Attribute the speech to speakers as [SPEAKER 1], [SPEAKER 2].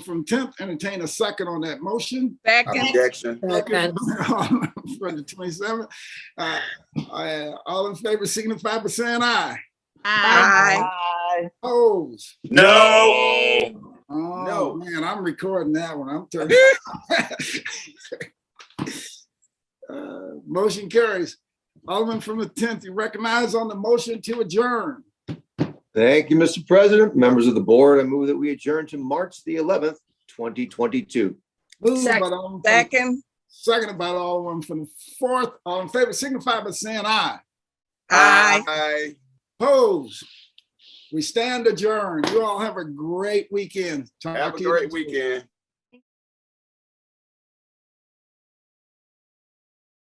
[SPEAKER 1] from tenth, entertain a second on that motion.
[SPEAKER 2] Second,
[SPEAKER 3] Objection.
[SPEAKER 1] Second For the twenty-seventh. Uh, uh, all in favor, signify by saying aye.
[SPEAKER 2] aye.
[SPEAKER 1] Opposed?
[SPEAKER 3] No.
[SPEAKER 1] Oh,
[SPEAKER 3] No.
[SPEAKER 1] man, I'm recording that one. I'm turning. Uh, Motion carries. Alderman from the tenth, you recognize on the motion to adjourn.
[SPEAKER 4] Thank you, Mr. President. Members of the board, I move that we adjourn to March the 11th, 2022.
[SPEAKER 1] Moved by
[SPEAKER 2] Second.
[SPEAKER 1] Alderman from-
[SPEAKER 2] Second,
[SPEAKER 1] Seconded by Alderman from the fourth. All in favor, signify by saying aye.
[SPEAKER 2] aye.
[SPEAKER 3] Aye.
[SPEAKER 1] Opposed? We stand adjourned. You all have a great weekend. Talk
[SPEAKER 3] Have a
[SPEAKER 1] to you
[SPEAKER 3] great
[SPEAKER 1] next week.
[SPEAKER 3] weekend.